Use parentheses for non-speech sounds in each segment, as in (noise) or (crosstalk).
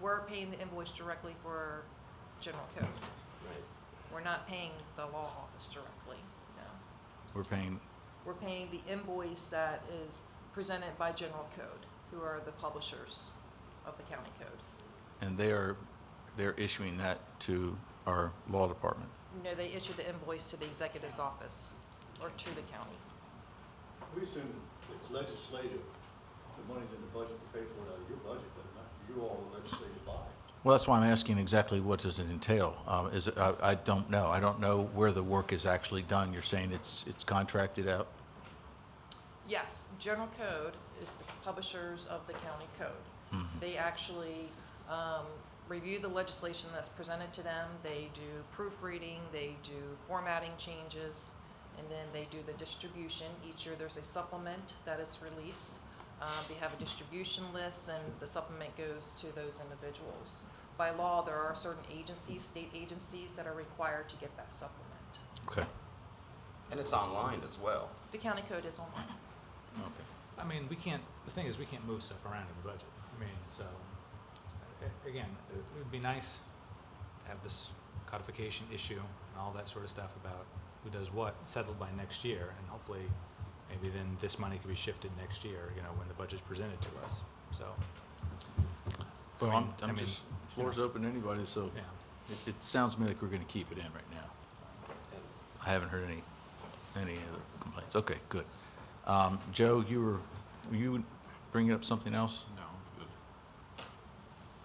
we're paying the invoice directly for general code. Right. We're not paying the law office directly, no. We're paying, We're paying the invoice that is presented by general code, who are the publishers of the county code. and they are, they're issuing that to our law department. No, they issue the invoice to the executive's office or to the county. We assume it's legislative, the money's in the budget to pay for it out of your budget, but not you all are legislative body. Well, that's why I'm asking exactly what does it entail? Um, Is, it- I I don't know. I don't know where the work is actually done. You're saying it's, it's contracted out? Yes, general code is the publishers of the county code. They actually um, review the legislation that's presented to them, they do proofreading, they do formatting changes, and then they do the distribution. Each year, there's a supplement that is released. Uh, They have a distribution list, and the supplement goes to those individuals. By law, there are certain agencies, state agencies, that are required to get that supplement. Okay. And it's online as well. The county code is online. Okay. I mean, we can't, the thing is, we can't move stuff around in the budget. I mean, so, a- again, it it would be nice to have this codification issue and all that sort of stuff about who does what settled by next year, and hopefully, maybe then this money could be shifted next year, you know, when the budget's presented to us, so, Well, I I'm, mean- I I'm mean, just, floor's open to anybody, so yeah. it, it sounds to me like we're gonna keep it in right now. I haven't heard any, any other complaints. Okay, good. Um, Joe, you were, were you bringing up something else? No, but,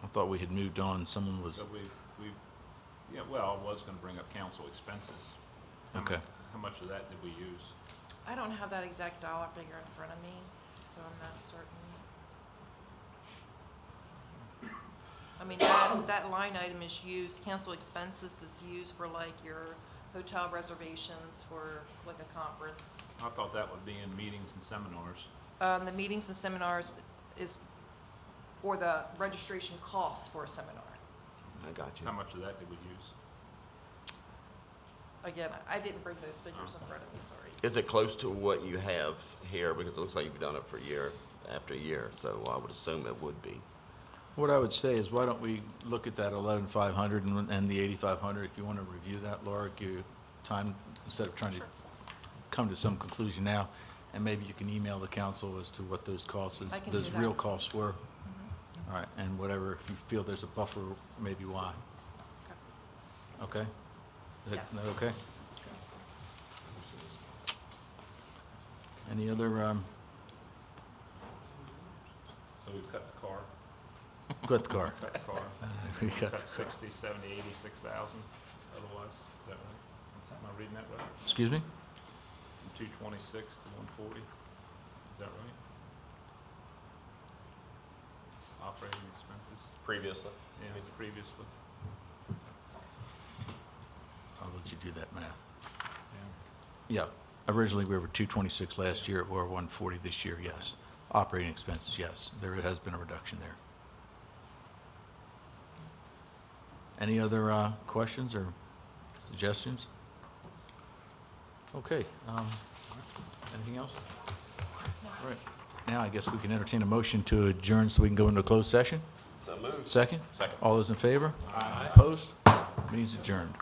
I thought we had moved on. Someone was, but we, we, yeah, well, I was gonna bring up council expenses. How mu- Okay. How much of that did we use? I don't have that exact dollar figure in front of me, so I'm not certain. I mean, that, that line item is used, council expenses is used for like your hotel reservations for like a conference. I thought that would be in meetings and seminars. Um, the meetings and seminars is, or the registration costs for a seminar. I got you. How much of that did we use? Again, I didn't bring those figures in front of me, sorry. Is it close to what you have here? Because it looks like you've done it for year after year, so I would assume it would be. what I would say is why don't we look at that eleven five hundred and, and the eighty-five hundred? If you wanna review that, Laura, give you time, instead of trying to Sure. come to some conclusion now. And maybe you can email the council as to what those costs, is- I can those do that. Mm-hmm. real costs were. All right, and whatever, if you feel there's a buffer, maybe why. Okay? Is that- Yes. Is that okay? Any other, um, So we cut the car, cut the (laughs) car. cut the car, We got cut the car. sixty, seventy, eighty-six thousand otherwise. Is that right? Am I reading that right? Excuse me? From two twenty-six to one forty? Is that right? Operating expenses? Previously. Yeah, previously. I'll let you do that math. Yeah, originally we were two twenty-six last year, we're one forty this year, yes. Operating expenses, yes, there has been a reduction there. Any other, uh, questions or suggestions? Okay, um, anything else? All right, now I guess we can entertain a motion to adjourn so we can go into a closed session? So moved. Second? Second. All those in favor? Aye. Opposed? Meeting's adjourned.